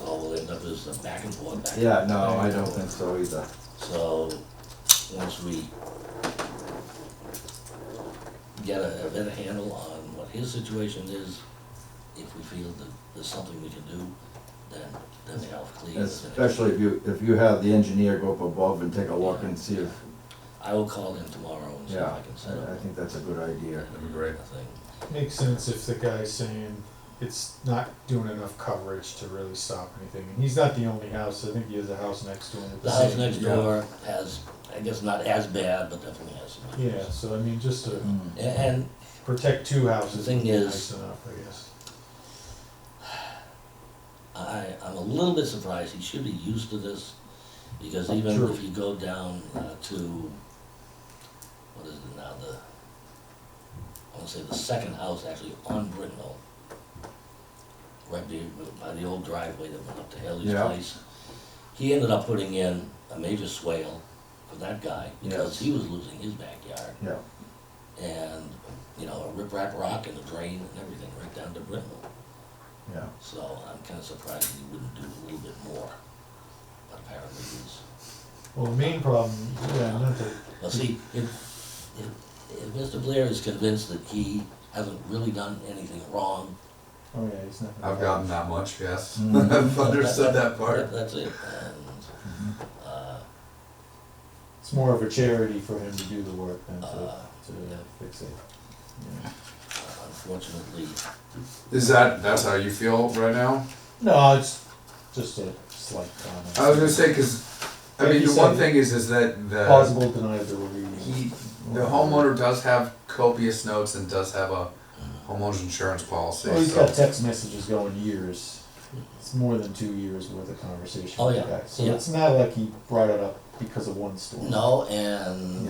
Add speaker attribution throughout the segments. Speaker 1: of is the back and forth, back and
Speaker 2: Yeah, no,
Speaker 1: forth.
Speaker 2: I don't think so either.
Speaker 1: So, once we get a, a better handle on what his situation is, if we feel that there's something we can do, then, then the Alf Clea is. the next-
Speaker 2: Especially if you, if you have the engineer go up above and take a look and see if,
Speaker 1: I will call him tomorrow and see if
Speaker 2: yeah,
Speaker 1: I can set up.
Speaker 2: I, I think that's a good idea.
Speaker 3: That'd be great.
Speaker 1: a thing.
Speaker 4: Makes sense if the guy's saying it's not doing enough coverage to really stop anything. And he's not the only house, I think he has a house next to him with the
Speaker 1: The house
Speaker 4: same-
Speaker 1: next
Speaker 3: yeah.
Speaker 1: door has, I guess not as bad, but definitely has some.
Speaker 4: Yeah, so I mean, just to
Speaker 2: Mm.
Speaker 1: A- And
Speaker 4: protect two houses
Speaker 1: The thing
Speaker 4: would be
Speaker 1: is-
Speaker 4: nice enough, I guess.
Speaker 1: I, I'm a little bit surprised, he should be used to this, because even
Speaker 4: Sure.
Speaker 1: if you go down uh, to, what is it now, the, I wanna say the second house actually on Brittenell, right be- by the old driveway that went up to Haley's
Speaker 2: Yeah.
Speaker 1: place. He ended up putting in a major swale for that guy, because
Speaker 2: Yes.
Speaker 1: he was losing his backyard,
Speaker 2: Yeah,
Speaker 1: and, you know, a riprap rock and a drain and everything right down to Brittenell.
Speaker 2: yeah.
Speaker 1: So I'm kind of surprised he wouldn't do a little bit more, but apparently he's,
Speaker 4: Well, the main problem, yeah, not that,
Speaker 1: well, see, if, if, if Mr. Blair is convinced that he hasn't really done anything wrong,
Speaker 4: oh yeah, he's not. gonna-
Speaker 3: I've gotten that much, yes.
Speaker 4: Mm-hmm.
Speaker 2: Mm.
Speaker 3: I've understood
Speaker 1: that-
Speaker 3: that part.
Speaker 1: that's it, and,
Speaker 4: Mm-hmm.
Speaker 2: Mhm.
Speaker 1: uh,
Speaker 4: It's more of a charity for him to do the work than to,
Speaker 1: Uh,
Speaker 4: to
Speaker 1: yeah.
Speaker 4: fix it. Yeah.
Speaker 1: unfortunately,
Speaker 3: Is that, that's how you feel right now?
Speaker 4: No, it's just a slight comment.
Speaker 3: I was gonna say, cause, I
Speaker 4: Like
Speaker 3: mean,
Speaker 4: you
Speaker 3: the one
Speaker 4: said,
Speaker 3: thing is, is that the,
Speaker 4: Plausible deniability.
Speaker 3: he, the homeowner does have copious notes and does have a homeowner's insurance policy,
Speaker 4: Well, he's got
Speaker 3: so.
Speaker 4: text messages going years. It's more than two years worth of conversation
Speaker 1: Oh,
Speaker 4: with the
Speaker 1: yeah,
Speaker 4: guy. So
Speaker 1: yeah.
Speaker 4: it's not like he brought it up because of one story.
Speaker 1: no, and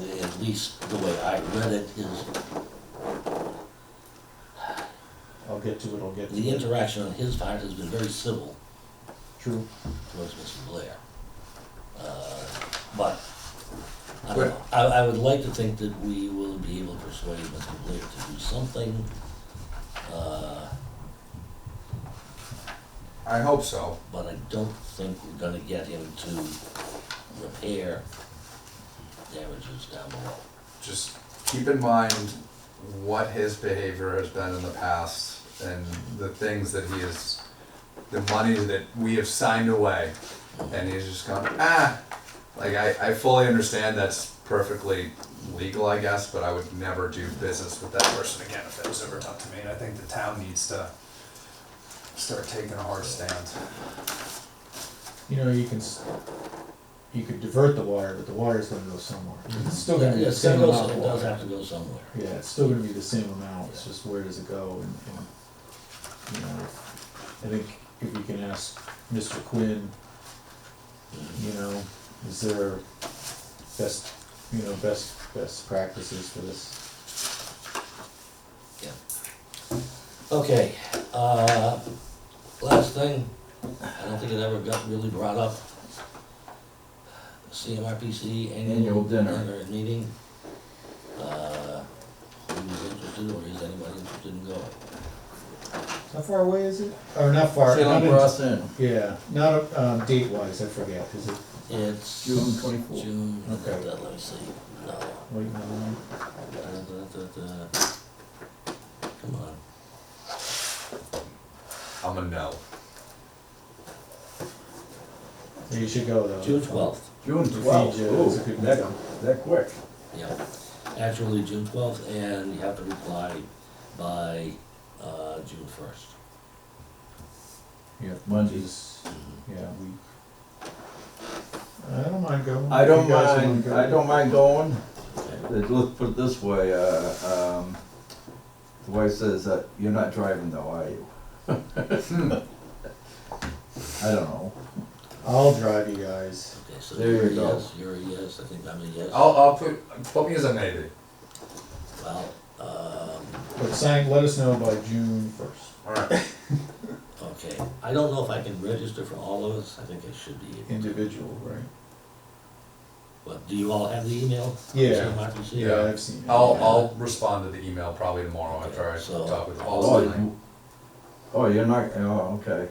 Speaker 4: Yeah.
Speaker 1: at least the way I read it, his,
Speaker 4: I'll get to it, I'll get to
Speaker 1: the
Speaker 4: it.
Speaker 1: interaction on his part has been very civil.
Speaker 4: True.
Speaker 1: towards Mr. Blair. Uh, But, I don't
Speaker 3: Right.
Speaker 1: know, I, I would like to think that we will be able to persuade Mr. Blair to do something. uh,
Speaker 3: I hope so.
Speaker 1: But I don't think we're gonna get him to repair damages down below.
Speaker 3: Just keep in mind what his behavior has been in the past and the things that he is, the money that we have signed away. And he's just going, ah, like I, I fully understand that's perfectly legal, I guess, but I would never do business with that person again if it was ever done to me. And I think the town needs to start taking a hard stand.
Speaker 4: You know, you can, s- you could divert the wire, but the wire's gonna go somewhere. It's still gonna be the
Speaker 1: Yes, it
Speaker 4: same
Speaker 1: goes-
Speaker 4: amount of
Speaker 1: It does have
Speaker 4: water.
Speaker 1: to go somewhere.
Speaker 4: Yeah, it's still gonna be the same amount, it's just where does it go and, and, you know, I think if you can ask Mr. Quinn, you know, is there best, you know, best, best practices for this?
Speaker 1: Okay, uh, last thing, I don't think it ever got really brought up. CMRPC annual.
Speaker 2: Annual dinner.
Speaker 1: Meeting. Uh, who's interested or is anybody interested in going?
Speaker 4: How far away is it? Or not far, not
Speaker 2: Salem
Speaker 4: in-
Speaker 2: Cross Inn.
Speaker 4: yeah, not, um, date wise, I forget, is it
Speaker 1: It's.
Speaker 2: June 24.
Speaker 1: June,
Speaker 4: Okay.
Speaker 1: uh, let me see, no.
Speaker 4: late in the morning?
Speaker 1: Da, da, da, da. Come on,
Speaker 3: I'm a no.
Speaker 4: Yeah, You should go though.
Speaker 1: June twelfth,
Speaker 2: June
Speaker 4: Feed
Speaker 2: twelfth,
Speaker 4: you,
Speaker 2: ooh,
Speaker 4: that's a good
Speaker 2: that,
Speaker 4: one.
Speaker 2: that quick.
Speaker 1: yeah, actually June twelfth, and you have to reply by, uh, June first.
Speaker 4: Yeah,
Speaker 2: Mondays.
Speaker 4: yeah, we. I don't mind going.
Speaker 2: I
Speaker 4: if you
Speaker 2: don't
Speaker 4: guys wanna
Speaker 2: mind,
Speaker 4: go.
Speaker 2: I don't mind going,
Speaker 1: Okay.
Speaker 2: Uh, let's put it this way, uh, um, the wife says that you're not driving though, are you? Hmm. I don't know,
Speaker 4: I'll drive you guys.
Speaker 1: Okay, so
Speaker 2: There
Speaker 1: you're a
Speaker 2: you go.
Speaker 1: yes, you're a yes, I think I'm a yes. Oh,
Speaker 3: I'll, I'll put, put me as a maybe.
Speaker 1: Well, um,
Speaker 4: But sign, let us know by June first.
Speaker 3: All right.
Speaker 1: okay, I don't know if I can register for all of us, I think I should be. able to.
Speaker 4: Individual, right?
Speaker 1: But do you all have the email?
Speaker 4: Yeah.
Speaker 1: CMRPC?
Speaker 3: Yeah.
Speaker 4: I've seen it.
Speaker 3: I'll, I'll respond to the email probably tomorrow after I
Speaker 1: So-
Speaker 3: talk with
Speaker 2: oh,
Speaker 3: Paul.
Speaker 2: you, oh, you're not, oh, okay,